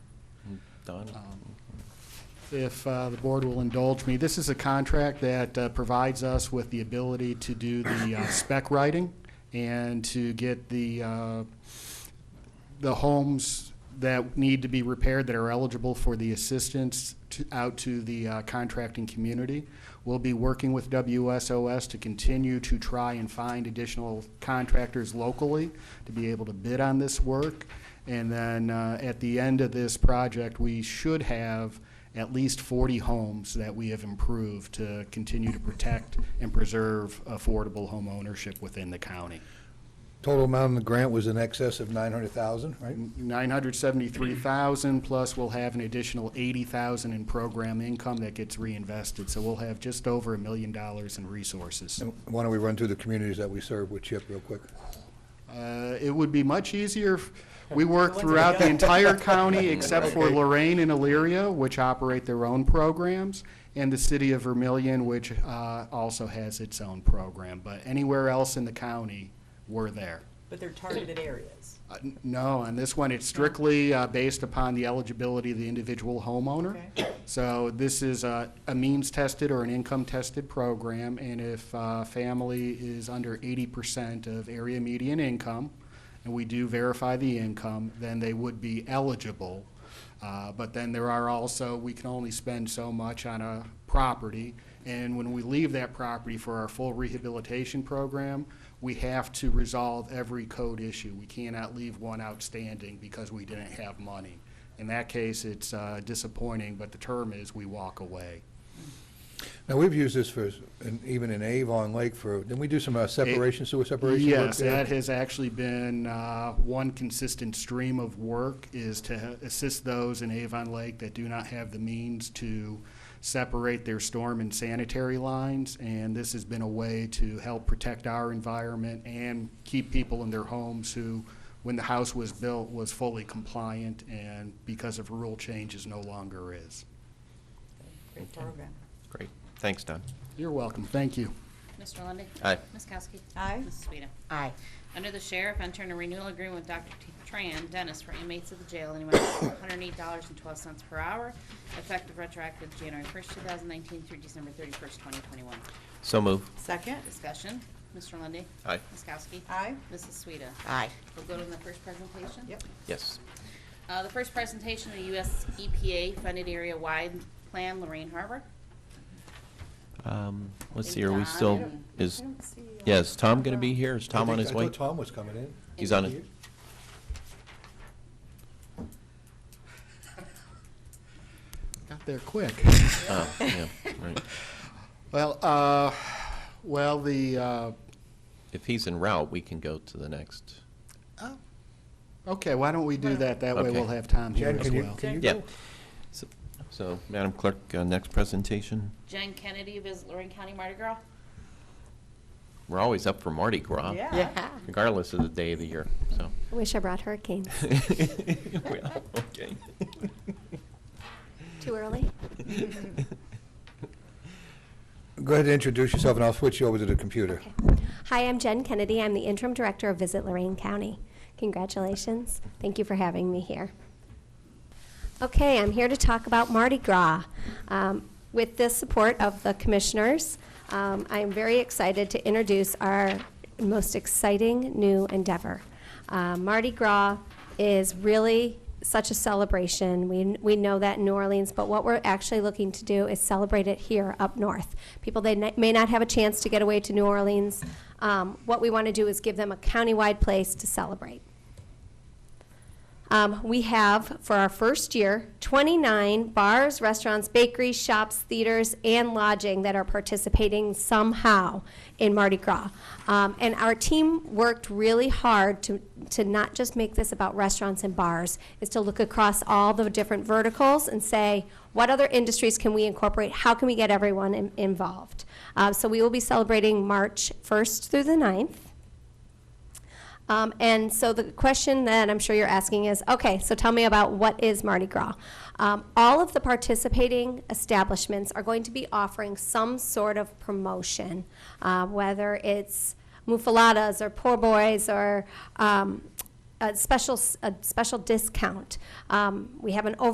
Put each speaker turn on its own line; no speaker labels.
Done.
If uh, the board will indulge me, this is a contract that uh, provides us with the ability to do the uh, spec writing and to get the, uh, the homes that need to be repaired that are eligible for the assistance to- out to the uh, contracting community. We'll be working with WSOS to continue to try and find additional contractors locally to be able to bid on this work. And then uh, at the end of this project, we should have at least 40 homes that we have improved to continue to protect and preserve affordable home ownership within the county.
Total amount of the grant was in excess of 900,000, right?
973,000 plus we'll have an additional 80,000 in program income that gets reinvested. So we'll have just over a million dollars in resources.
And Why don't we run through the communities that we serve with CHIP real quick?
Uh, It would be much easier, if- we work throughout the entire county except for Lorraine and Elyria, which operate their own programs, and the city of Vermillion, which uh, also has its own program. But anywhere else in the county, we're there.
But they're targeted areas.
Uh, n- No, on this one, it's strictly uh, based upon the eligibility of the individual homeowner. So this is a, a means-tested or an income-tested program, and if a family is under eighty percent of area median income, and we do verify the income, then they would be eligible. Uh, But then there are also, we can only spend so much on a property, and when we leave that property for our full rehabilitation program, we have to resolve every code issue. We cannot leave one outstanding because we didn't have money. In that case, it's uh, disappointing, but the term is we walk away.
Now, we've used this for, and even in Avon Lake for, didn't we do some uh, separation, sewer separation work
Yes,
there?
that has actually been uh, one consistent stream of work is to assist those in Avon Lake that do not have the means to separate their storm and sanitary lines. And this has been a way to help protect our environment and keep people in their homes who, when the house was built, was fully compliant and because of rule changes, no longer is.
Great program.
Great. Thanks, Don.
You're welcome. Thank you.
Mr. Lundey.
Aye.
Ms. Kowski.
Aye.
Mrs. Sueda.
Aye.
Under the sheriff, enter a renewal agreement with Dr. T- Tran Dennis for inmates of the jail in the amount of $108.12 per hour, effective retroactive January 1st, 2019 through December 31st, 2021.
So move.
Second?
Discussion, Mr. Lundey.
Aye.
Ms. Kowski.
Aye.
Mrs. Sueda.
Aye.
We'll go to the first presentation.
Yep.
Yes.
Uh, The first presentation, the E U.S. EPA-funded area-wide plan, Lorraine Harbor.
Um, let's
Is
see, are we
Tom
still,
in?
is,
I don't see, uh,
yeah, is Tom gonna be here? Is Tom
I
on
think-
his way?
I thought Tom was coming in.
He's on it.
Got there quick.
Oh, yeah, right.
Well, uh, well, the, uh,
If he's en route, we can go to the next.
Okay, why don't we do that? That way
Okay.
we'll have Tom here
Jen,
as
can you,
well.
can you
Yeah.
go?
So- So, Madam Clerk, uh, next presentation.
Jen Kennedy, visit Lorraine County Mardi Gras.
We're always up for Mardi Gras.
Yeah.
Regardless of the day of the year, so.
Wish I brought hurricanes.
Well, okay.
Too early?
Go ahead and introduce yourself, and I'll switch you over to the computer.
Okay. Hi, I'm Jen Kennedy. I'm the interim director of Visit Lorraine County. Congratulations. Thank you for having me here. Okay, I'm here to talk about Mardi Gras. Um, With the support of the commissioners, um, I am very excited to introduce our most exciting new endeavor. Uh, Mardi Gras is really such a celebration. We, we know that in New Orleans, but what we're actually looking to do is celebrate it here up north. People that n- may not have a chance to get away to New Orleans, um, what we want to do is give them a countywide place to celebrate. Um, we have, for our first year, 29 bars, restaurants, bakeries, shops, theaters, and lodging that are participating somehow in Mardi Gras. Um, and our team worked really hard to, to not just make this about restaurants and bars, is to look across all the different verticals and say, what other industries can we incorporate? How can we get everyone in- involved? Uh, so we will be celebrating March 1st through the 9th. Um, and so the question that I'm sure you're asking is, okay, so tell me about what is Mardi Gras? Um, all of the participating establishments are going to be offering some sort of promotion, uh, whether it's mufaladas or poor boys or um, a special s- a special discount. Um, we have an over